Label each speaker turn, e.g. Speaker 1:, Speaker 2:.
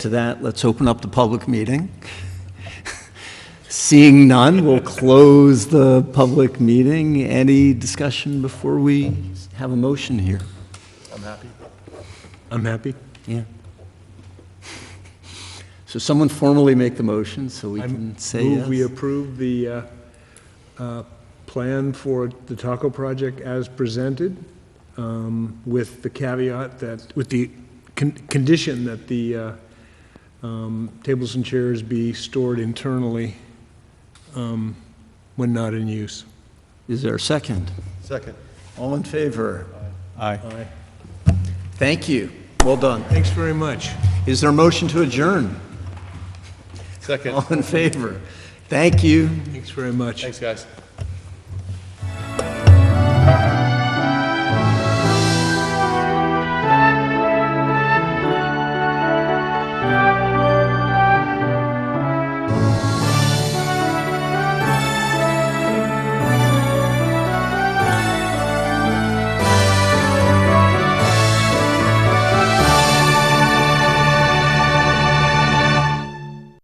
Speaker 1: To that, let's open up the public meeting. Seeing none, we'll close the public meeting. Any discussion before we have a motion here?
Speaker 2: I'm happy. I'm happy.
Speaker 1: Yeah. So someone formally make the motion so we can say
Speaker 2: Move we
Speaker 1: yes.
Speaker 2: approve the uh, uh, plan for the Taco Project as presented, um, with the caveat that, with the con- condition that the uh, um, tables and chairs be stored internally um, when not in use.
Speaker 1: Is there a second?
Speaker 3: Second.
Speaker 1: All in favor?
Speaker 3: Aye.
Speaker 2: Aye.
Speaker 1: Thank you. Well done.
Speaker 2: Thanks very much.
Speaker 1: Is there a motion to adjourn?
Speaker 3: Second.
Speaker 1: Oh. All in favor? Thank you.
Speaker 2: Thanks very much.
Speaker 3: Thanks, guys.